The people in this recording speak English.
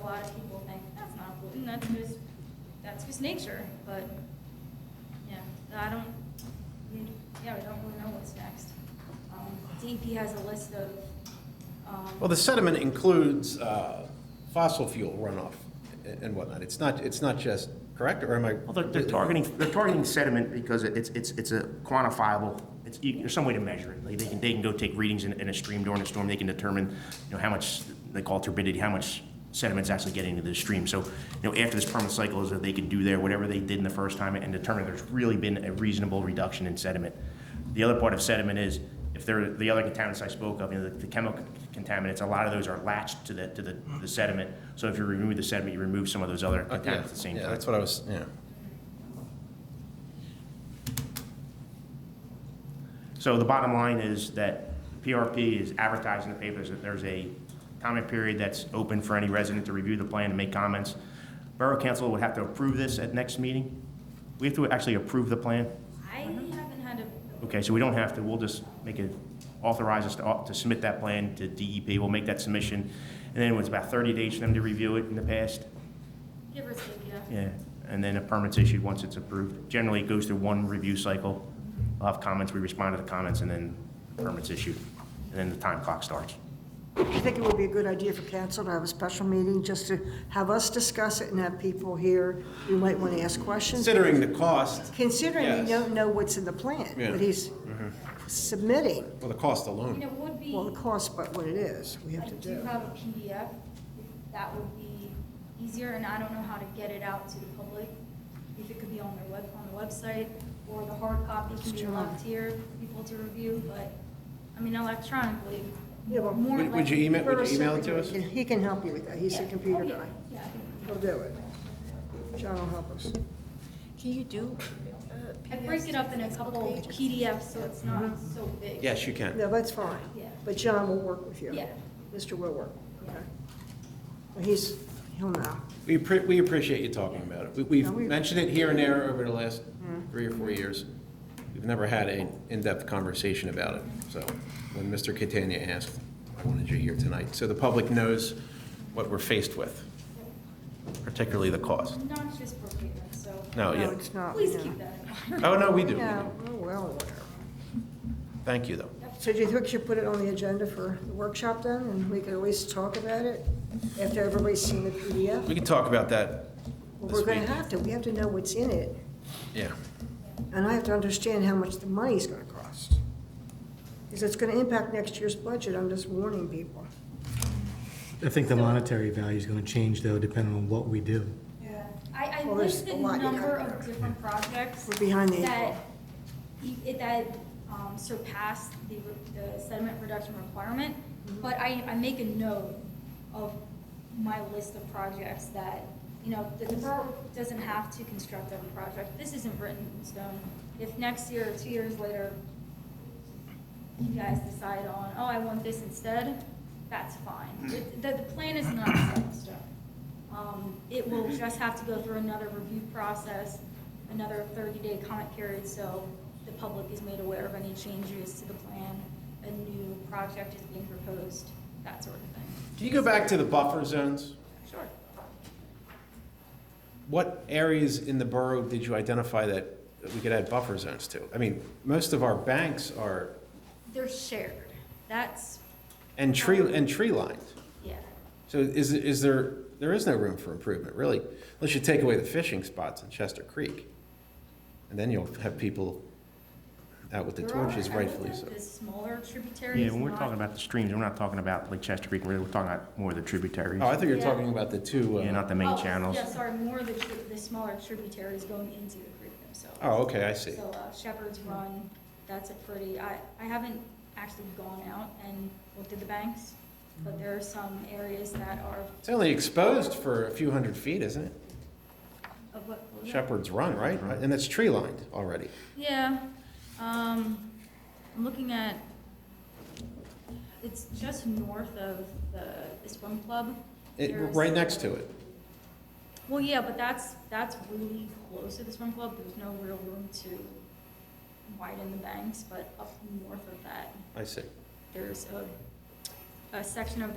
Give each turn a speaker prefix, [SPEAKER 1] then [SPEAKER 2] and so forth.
[SPEAKER 1] a lot of people think, that's not a pollutant, that's just, that's just nature, but, yeah, I don't, we- yeah, we don't really know what's next. Um, DEP has a list of, um.
[SPEAKER 2] Well, the sediment includes uh, fossil fuel runoff and whatnot. It's not, it's not just, correct, or am I?
[SPEAKER 3] Well, they're, they're targeting, they're targeting sediment because it- it's, it's, it's a quantifiable, it's, you- there's some way to measure it. Like, they can, they can go take readings in, in a stream during a storm, they can determine, you know, how much, they call it turbidity, how much sediment's actually getting into the stream. So, you know, after this permanent cycle is that they can do there, whatever they did in the first time and determine there's really been a reasonable reduction in sediment. The other part of sediment is, if there, the other contaminants I spoke of, you know, the- the chemical contaminants, a lot of those are latched to the, to the the sediment. So if you remove the sediment, you remove some of those
[SPEAKER 2] Uh,
[SPEAKER 3] other
[SPEAKER 2] yeah,
[SPEAKER 3] contaminants at the same
[SPEAKER 2] Yeah,
[SPEAKER 3] time.
[SPEAKER 2] that's what I was, yeah.
[SPEAKER 3] So the bottom line is that PRP is advertised in the papers that there's a comment period that's open for any resident to review the plan and make comments. Borough Council would have to approve this at next meeting. We have to actually approve the plan.
[SPEAKER 1] I haven't had a,
[SPEAKER 3] Okay, so we don't have to, we'll just make it, authorize us to au- to submit that plan to DEP. We'll make that submission. And then it was about 30 days for them to review it in the past.
[SPEAKER 1] give or take, yeah.
[SPEAKER 3] Yeah, and then a permit's issued once it's approved. Generally, it goes through one review cycle. We'll have comments, we respond to the comments, and then permit's issued. And then the time clock starts.
[SPEAKER 4] I think it would be a good idea for council to have a special meeting, just to have us discuss it and have people here who might want to ask questions.
[SPEAKER 2] Considering the cost,
[SPEAKER 4] Considering
[SPEAKER 2] Yes.
[SPEAKER 4] we don't know what's in the plan,
[SPEAKER 2] Yeah. Mm-hmm.
[SPEAKER 4] what he's submitting,
[SPEAKER 2] well, the cost
[SPEAKER 1] You know,
[SPEAKER 2] alone.
[SPEAKER 1] it would be.
[SPEAKER 4] well, the cost, but what it is, we have
[SPEAKER 1] I
[SPEAKER 4] to
[SPEAKER 1] do
[SPEAKER 4] do.
[SPEAKER 1] have a PDF, that would be easier, and I don't know how to get it out to the public, if it could be on their web, on the website, or the hard copy can be
[SPEAKER 4] Sure.
[SPEAKER 1] left here for people to review, but, I mean, electronically,
[SPEAKER 4] Yeah, but-
[SPEAKER 1] more
[SPEAKER 2] Would- would you
[SPEAKER 1] likely-
[SPEAKER 2] email- would you email it to us?
[SPEAKER 4] He can- He can help you with that, he's a
[SPEAKER 1] Yeah.
[SPEAKER 4] computer
[SPEAKER 1] Oh, yeah.
[SPEAKER 4] guy,
[SPEAKER 1] Yeah, I can-
[SPEAKER 4] he'll do it. John will help us.
[SPEAKER 5] Can you do? uh,
[SPEAKER 1] I
[SPEAKER 5] PDFs?
[SPEAKER 1] break it up in a couple
[SPEAKER 5] pages?
[SPEAKER 1] PDFs, so it's not
[SPEAKER 4] Mm-hmm.
[SPEAKER 1] so big.
[SPEAKER 2] Yes, you can.
[SPEAKER 4] No, that's fine,
[SPEAKER 1] Yeah.
[SPEAKER 4] but John will work with you.
[SPEAKER 1] Yeah.
[SPEAKER 4] Mr. will work, okay. Well, He's, he'll know.
[SPEAKER 2] We, appre- we appreciate you talking about it. We- We've
[SPEAKER 4] No, we- Mm-hmm.
[SPEAKER 2] mentioned it here and there over the last three or four years. We've never had an in-depth conversation about it, so when Mr. Catania asked, I wanted you here tonight, so the public knows what we're faced with, particularly the cost.
[SPEAKER 1] Not just for paper, so
[SPEAKER 2] No,
[SPEAKER 4] No,
[SPEAKER 2] yeah.
[SPEAKER 4] it's not.
[SPEAKER 1] please
[SPEAKER 4] yeah.
[SPEAKER 1] keep that in mind.
[SPEAKER 2] Oh, no, we do. we
[SPEAKER 4] No,
[SPEAKER 2] do.
[SPEAKER 4] we're well aware.
[SPEAKER 2] Thank you, though.
[SPEAKER 4] So do you think we should put it on the agenda for the workshop then, and we could always talk about it after everybody's seen the PDF?
[SPEAKER 2] We can talk about that
[SPEAKER 4] Well,
[SPEAKER 2] this
[SPEAKER 4] We're gonna
[SPEAKER 2] week.
[SPEAKER 4] have to, we have to know what's in it,
[SPEAKER 2] Yeah.
[SPEAKER 4] and I have to understand how much the money's gonna cost. Because it's gonna impact next year's budget, I'm just warning people.
[SPEAKER 6] I think the monetary value is going to change, though, depending on what we do.
[SPEAKER 1] Yeah, I, I
[SPEAKER 4] Well, there's
[SPEAKER 1] listed a
[SPEAKER 4] a lot you
[SPEAKER 1] number
[SPEAKER 4] got
[SPEAKER 1] of
[SPEAKER 4] there.
[SPEAKER 1] different projects.
[SPEAKER 4] We're behind the eight
[SPEAKER 1] That,
[SPEAKER 4] ball.
[SPEAKER 1] e- it- that um, surpassed the, re- the sediment reduction requirement,
[SPEAKER 4] Mm-hmm.
[SPEAKER 1] but I, I make a note of my list of projects that, you know, the the borough doesn't have to construct every project. This isn't written in stone. If next year or two years later, you guys decide on, oh, I want this instead, that's
[SPEAKER 2] Hmm.
[SPEAKER 1] fine. It- The, the plan is not set in stone. Um, It will
[SPEAKER 2] Hmm.
[SPEAKER 1] just have to go through another review process, another thirty-day comment period, so the public is made aware of any changes to the plan, a new project is being proposed, that sort of thing.
[SPEAKER 2] Can you go back to the buffer zones?
[SPEAKER 1] Sure.
[SPEAKER 2] What areas in the borough did you identify that that we could add buffer zones to? I mean, most of our banks are,
[SPEAKER 1] They're shared, that's,
[SPEAKER 2] and tree, and tree lined.
[SPEAKER 1] yeah.
[SPEAKER 2] So is, is there, there is no room for improvement, really, unless you take away the fishing spots in Chester Creek. And then you'll have people out with the
[SPEAKER 1] There
[SPEAKER 2] torches
[SPEAKER 1] are- I looked
[SPEAKER 2] rightfully
[SPEAKER 1] at
[SPEAKER 2] so.
[SPEAKER 1] The smaller tributaries.
[SPEAKER 3] Yeah, when we're
[SPEAKER 1] not-
[SPEAKER 3] talking about the streams, we're not talking about Lake Chester Creek, we're we're talking about more of the tributaries.
[SPEAKER 2] Oh, I thought you were
[SPEAKER 1] Yeah.
[SPEAKER 2] talking about the two,
[SPEAKER 3] Yeah,
[SPEAKER 2] uh,
[SPEAKER 3] not the main
[SPEAKER 1] Oh,
[SPEAKER 3] channels.
[SPEAKER 1] Yeah, sorry, more of the, tri- the smaller tributaries going into the creek themselves.
[SPEAKER 2] oh, okay, I see.
[SPEAKER 1] So uh, Shepherd's Run, that's a pretty, I, I haven't actually gone out and looked at the banks, but there are some areas that are
[SPEAKER 2] It's only exposed for a few hundred feet, isn't it?
[SPEAKER 1] of what. what was that?
[SPEAKER 2] Shepherd's Run, right? And it's tree lined already.
[SPEAKER 1] Yeah, um, I'm looking at, it's just north of the, the swim club.
[SPEAKER 2] It,
[SPEAKER 1] There's-
[SPEAKER 2] right next to it.
[SPEAKER 1] Well, yeah, but that's, that's really close to the swim club, there's no real room to widen the banks, but up north of that,
[SPEAKER 2] I see.
[SPEAKER 1] there's a, a section of